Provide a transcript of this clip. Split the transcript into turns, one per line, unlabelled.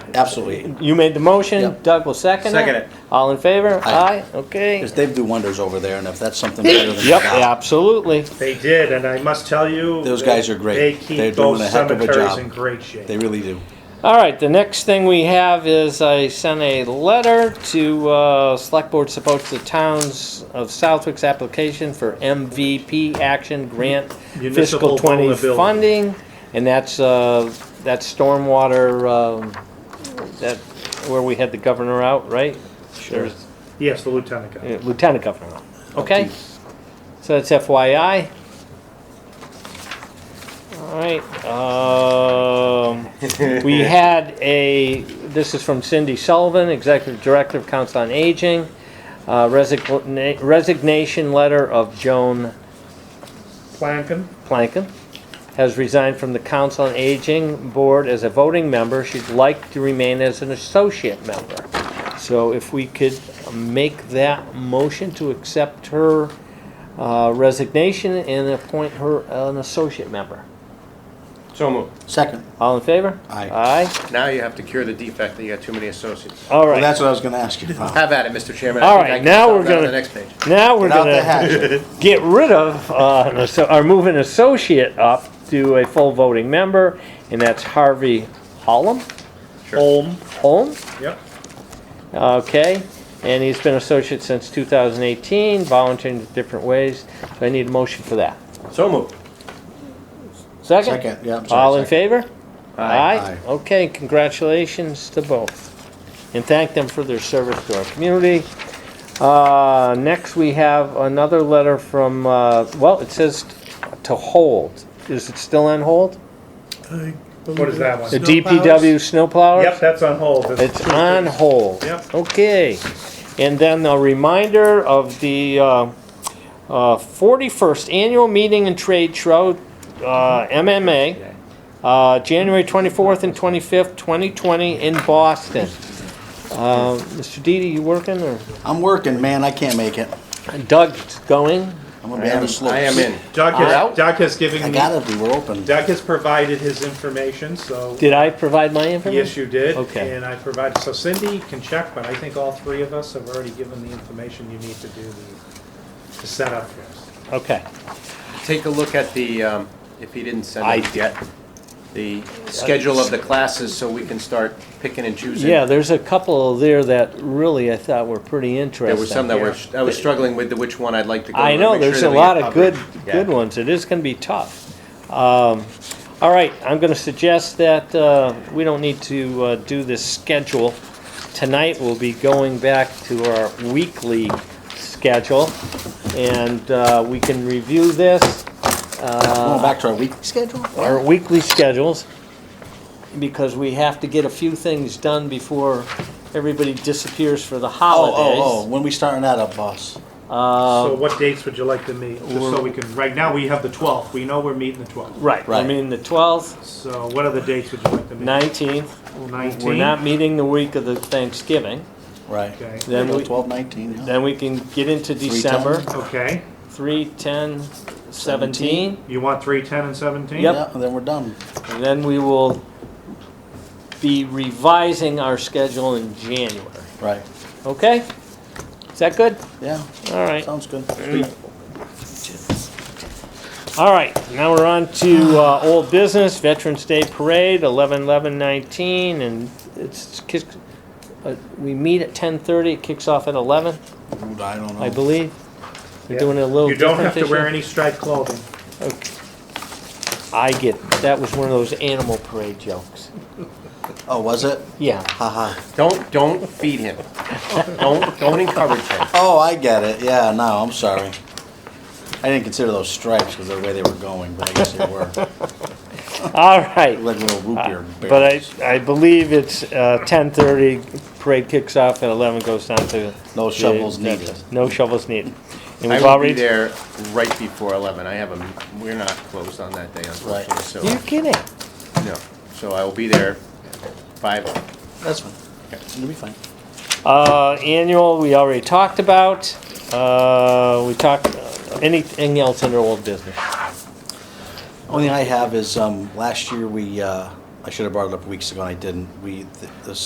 Absolutely.
You made the motion,
Yep.
Doug will second it.
Second it.
All in favor?
Aye.
Aye, okay.
Because they do wonders over there, and if that's something better than
Yep,
that,
absolutely.
They did, and I must tell you.
Those
they-
guys are great.
They
They're
keep
doing
those
a heck of a
cemeteries
job.
in great shape.
they really do.
All right, the next thing we have is I sent a letter to uh, Select Board supports the towns of Southwick's application for MVP Action Grant Fiscal
Municipal
20
vulnerability.
funding, and that's, uh, that stormwater, um, that, where we had the governor out, right? Sure.
Yes, the lieutenant guy.
Uh, Lieutenant governor out, okay? So that's FYI. All right, um, we had a, this is from Cindy Sullivan, Executive Director of Council on Aging, uh, resigna- resignation letter of Joan
Plankin,
Plankin, has resigned from the Council on Aging Board as a voting member. She'd like to remain as an associate member. So if we could make that motion to accept her uh, resignation and appoint her an associate member.
So moved.
Second.
All in favor?
Aye.
Aye?
Now you have to cure the defect that you got too many associates.
All
Well,
right.
that's what I was gonna ask you about.
Have at it, Mr. Chairman. I
All
think I
right,
can
now
solve
we're
that on
gonna-
The next page.
Now we're
Get out the
gonna
hatchet.
get rid of, uh, an asso- or move an associate up to a full voting member, and that's Harvey Holm,
Holm,
Holm?
yep.
Okay, and he's been associate since 2018, volunteering in different ways, so I need a motion for that.
So moved.
Second?
Second, yeah, I'm sorry.
All in
second.
favor?
Aye.
Okay, congratulations to both. And thank them for their service to our community. Uh, next, we have another letter from, uh, well, it says to hold. Is it still on hold?
What is that
The
one?
DPW snowplower?
Yep, that's on hold. That's-
It's on hold.
Yep.
Okay. And then a reminder of the uh, uh, 41st Annual Meeting and Trade Show, uh, MMA, uh, January 24th and 25th, 2020 in Boston. Uh, Mr. Didi, you working or
I'm working, man, I can't make it.
Doug's going?
I'm gonna be on the slopes.
I am in.
Doug
Out.
has, Doug has
I
given me,
gotta be, we're open.
Doug has provided his information, so,
Did I provide my information?
yes, you did.
Okay.
And I provided, so Cindy can check, but I think all three of us have already given the information you need to do the, to set up this.
Okay.
Take a look at the, um, if he didn't send
I
it yet, the schedule of the classes so we can start picking and choosing.
Yeah, there's a couple there that really I thought were pretty interesting.
There were some that were, I was struggling with the which one I'd like to go to.
I know,
make sure
there's
that
a
we
lot
get
of good,
covered. Yeah.
good ones. It is gonna be tough. Um, all right, I'm gonna suggest that, uh, we don't need to, uh, do this schedule. Tonight, we'll be going back to our weekly schedule, and, uh, we can review this,
Going back to our weekly schedule?
our
Oh,
weekly schedules, because we have to get a few things done before everybody disappears for the
Oh,
holidays.
oh, oh, when we starting that up, boss?
Uh,
So what dates would you like to meet? Just so we can, right now, we have the 12th. We know we're meeting the 12th.
Right, I
Right.
mean, the twelfth,
So what other dates would you like to meet?
nineteenth, We're not
19?
meeting the week of the Thanksgiving.
Right.
Okay.
Then we,
Twelve nineteen, yeah.
then we can get into December,
Okay.
three, ten, seventeen,
You want 3, 10, and 17?
Yep.
Yeah, and then we're done.
and then we will be revising our schedule in January.
Right,
Okay? Is that good?
yeah,
All right.
sounds good.
Mm.
All right, now we're on to uh, old business, Veterans Day Parade, 11/11/19, and it's, kick- uh, we meet at 10:30, it kicks off at 11,
Ooh, I don't
I
know.
believe. We're doing it a little
You don't
different
have to
this year.
wear any striped clothing.
I get that was one of those animal parade jokes.
Oh, was it?
Yeah.
Haha.
Don't, don't feed him. Don't, don't encourage him.
Oh, I get it, yeah, no, I'm sorry. I didn't consider those stripes because of the way they were going, but I guess they were.
All right.
Like little root beer
Uh, But I,
barrels.
I believe it's uh, 10:30. Parade kicks off at 11. Goes down to
No
the-
shovels needed.
No shovels needed. And
I
we've
will be
already.
there right before 11. I have a, we're not closed on that day unfortunately, so,
You're kidding.
no. So I will be there 5,
That's fine. It'll be fine.
Uh, annual. We already talked about. Uh, we talked. Anything else under old business?
Only thing I have is, um, last year we, uh, I should have brought it up weeks ago and I didn't. We, the- the